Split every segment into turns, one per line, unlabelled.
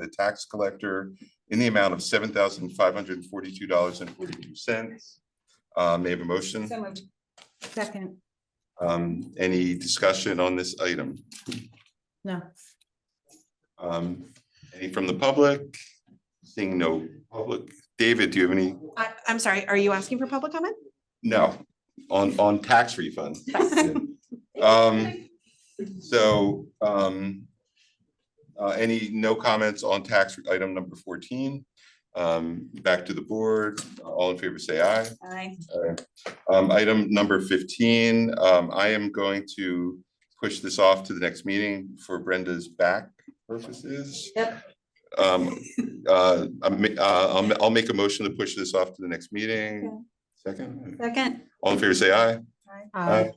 the tax collector in the amount of seven thousand five hundred and forty-two dollars and forty-two cents. Uh, may I have a motion?
So moved. Second,
Um, any discussion on this item?
no.
Um, any from the public? Seeing no public. David, do you have any?
I, I'm sorry, are you asking for public comment?
No, on, on tax refunds. Um, so, um, uh, any, no comments on tax item number fourteen? Um, back to the board, all in favor, say aye.
Aye.
Um, item number fifteen, um, I am going to push this off to the next meeting for Brenda's back purposes.
Yep.
Um, uh, I'm, ma- uh, I'll, ma- I'll make a motion to push this off to the next meeting. Second,
Second.
all in favor, say aye.
Aye.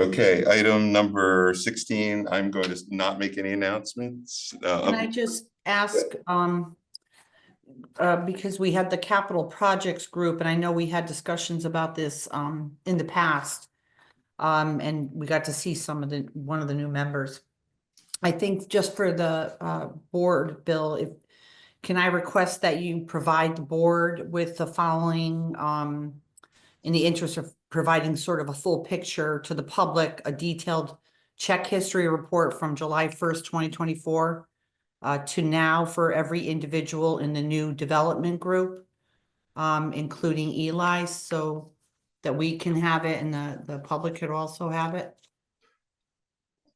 Okay, item number sixteen, I'm going to not make any announcements.
Can I
Uh,
just ask, um, uh, because we had the capital projects group, and I know we had discussions about this, um, in the past. Um, and we got to see some of the, one of the new members. I think just for the, uh, board, Bill, if, can I request that you provide the board with the following, um, in the interest of providing sort of a full picture to the public, a detailed check history report from July first, twenty twenty-four uh, to now for every individual in the new development group, um, including Eli, so that we can have it and the, the public could also have it.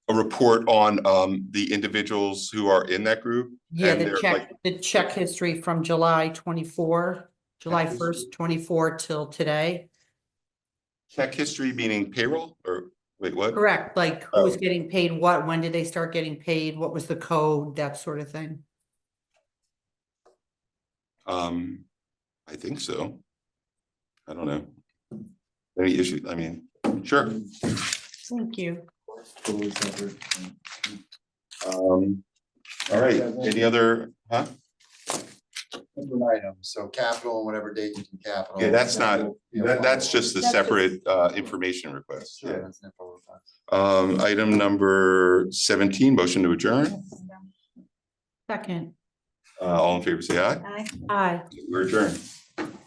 A report on, um, the individuals who are in that group.
Yeah,
And
the
they're
check, the check history from July twenty-four, July
history.
first, twenty-four till today.
Check history meaning payroll or, wait, what?
Correct, like who's
Oh.
getting paid what, when did they start getting paid, what was the code, that sort of thing.
Um, I think so. I don't know. Any issue, I mean, sure.
Thank you.
Um, all right, any other, huh?
Different items, um, so capital and whatever date you can capital.
Yeah, that's not-
Yeah,
That, that's just the
That's just-
separate, uh, information request.
Sure, that's not what we're talking
Um, item number seventeen, motion to adjourn.
Second,
Uh, all in favor, say aye.
Aye.
aye.
We're adjourned.